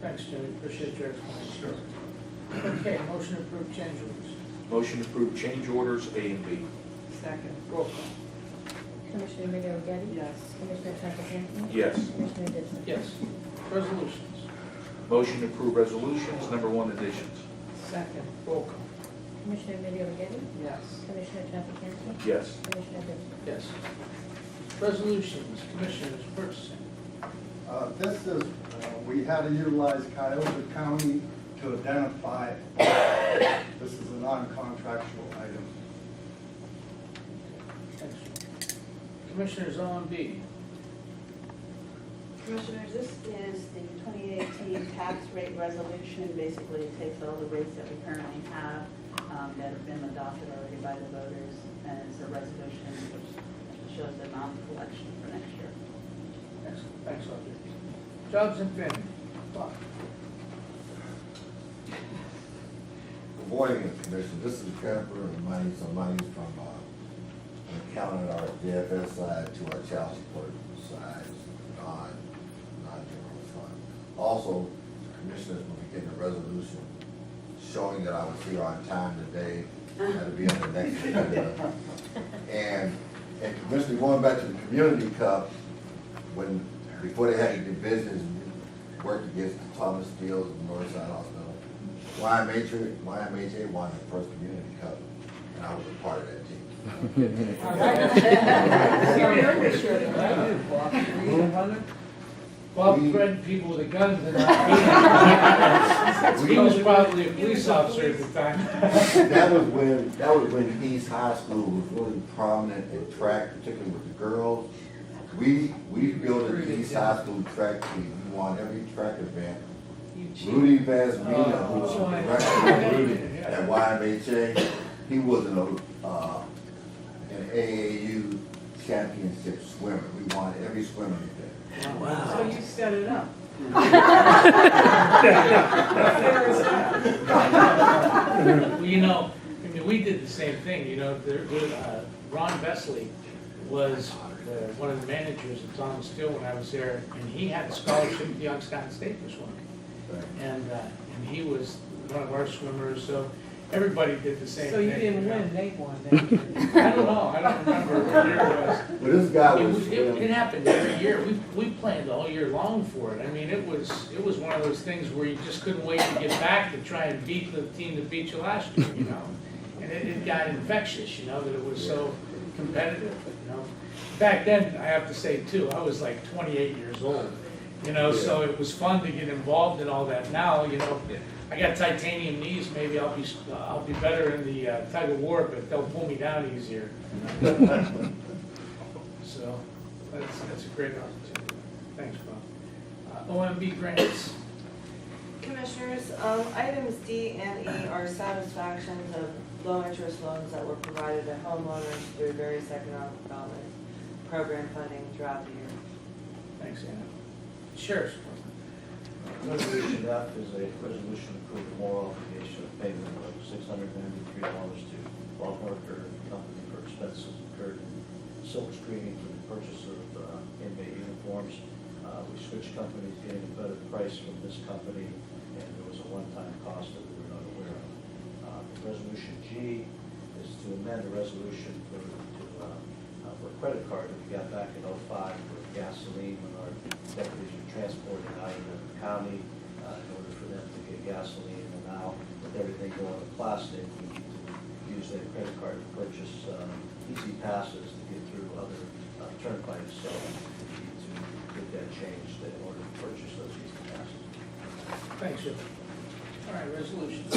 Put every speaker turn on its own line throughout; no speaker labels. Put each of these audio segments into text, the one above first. Thanks, Jimmy, appreciate your explanation. Okay, motion to approve change orders.
Motion to approve change orders A and B.
Second.
Roll call.
Commissioner Middy O'Geady?
Yes.
Commissioner Traficant?
Yes.
Commissioner Ditzler?
Yes. Resolutions.
Motion to approve resolutions, number one additions.
Second.
Roll call.
Commissioner Middy O'Geady?
Yes.
Commissioner Traficant?
Yes.
Commissioner Ditzler?
Yes. Resolutions, commissioners, purchasing.
Uh, This is, uh, we had to utilize Cuyahoga County to identify, this is a non-contractual item.
Thanks. Commissioners, on B.
Commissioners, this is the 2018 tax rate resolution. Basically, it takes all the rates that we currently have um, that have been adopted already by the voters, and it's a resolution which shows the amount of collection for next year.
Thanks, thanks, Audrey. Jobs and family. Bob.
Good morning, Commissioner. This is Jennifer, and my name's, my name's from, uh, an accountant, our DFS side to our child support side, non, non-general fund. Also, Commissioners will be getting a resolution showing that I was here on time today. That'll be on the next agenda. And, and Commissioner, going back to the Community Cup, when, before they had the divisions, worked against the Thomas Steele and Northside Hospital. YMHA, YMHA won the first Community Cup, and I was a part of that team.
Bob threatened people with a gun tonight. He was probably a police officer at the time.
That was when, that was when East High School was really prominent in track, particularly with the girls. We, we built an East High School track team, we won every track event. Rudy Vasmina, who was the director of Rudy at YMHA, he was an, uh, an AAU championship swimmer, we won every swimming event.
So you set it up.
Well, you know, I mean, we did the same thing, you know, there, uh, Ron Vesley was uh, one of the managers of Thomas Steele when I was there, and he had a scholarship to Youngstown State for swimming. And, uh, and he was one of our swimmers, so everybody did the same thing.
So you didn't
know.
win, they won. They-
I don't know, I don't remember what year it was.
But this guy
It
was.
was, it, it happened every year, we, we planned all year long for it, I mean, it was, it was one of those things where you just couldn't wait to get back to try and beat the team that beat you last year, you know? And it, it got infectious, you know, that it was so competitive, you know? Back then, I have to say too, I was like twenty-eight years old, you know, so it was fun to get involved in all that. Now, you know, I got titanium knees, maybe I'll be, I'll be better in the uh, tug of war, but they'll pull me down easier. So, that's, that's a great opportunity. Thanks, Bob. Uh, OMB grants,
Commissioners, um, items D and E are satisfactions of low-interest loans that were provided to homeowners through various economic development program funding throughout the year.
thanks, Anna. Sheriff's Department.
Resolution F is a resolution approving moral obligation of payment of six hundred ninety-three dollars to Bob Harker and Company for expenses incurred in silk screening for the purchase of uh, inmate uniforms. Uh, We switched companies, getting a better price from this company, and there was a one-time cost that we were not aware of. Uh, Resolution G is to amend a resolution for, to, uh, uh, for a credit card that we got back in oh-five for gasoline when our deputies were transported out of the county, uh, in order for them to get gasoline, and now with everything going to plastic, we need to use their credit card to purchase, uh, easy passes to get through other uh, turnpikes, so we need to get that changed in order to purchase those easy passes.
Thanks, Joe. All right, resolutions.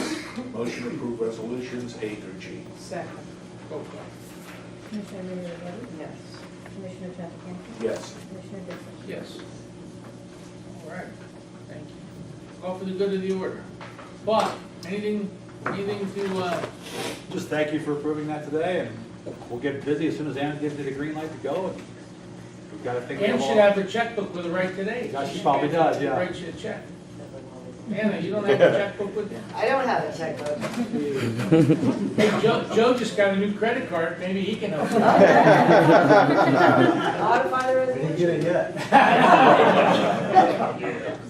Motion to approve resolutions A through G.
Second.
Roll call.
Commissioner Middy O'Geady?
Yes.
Commissioner Traficant?
Yes.
Commissioner Ditzler?
Yes. All right, thank you. All for the good of the order. Bob, anything, anything to, uh,
Just thank you for approving that today, and we'll get busy as soon as Ann gives me the green light to go, and we've got to think
Ann
of
should have her checkbook with her right today.
Yeah, she probably does, yeah.
Write you a check. Anna, you don't have a checkbook with you?
I don't have a checkbook.
Hey, Joe, Joe just got a new credit card, maybe he can help you.
Modify the resolution.
get it yet.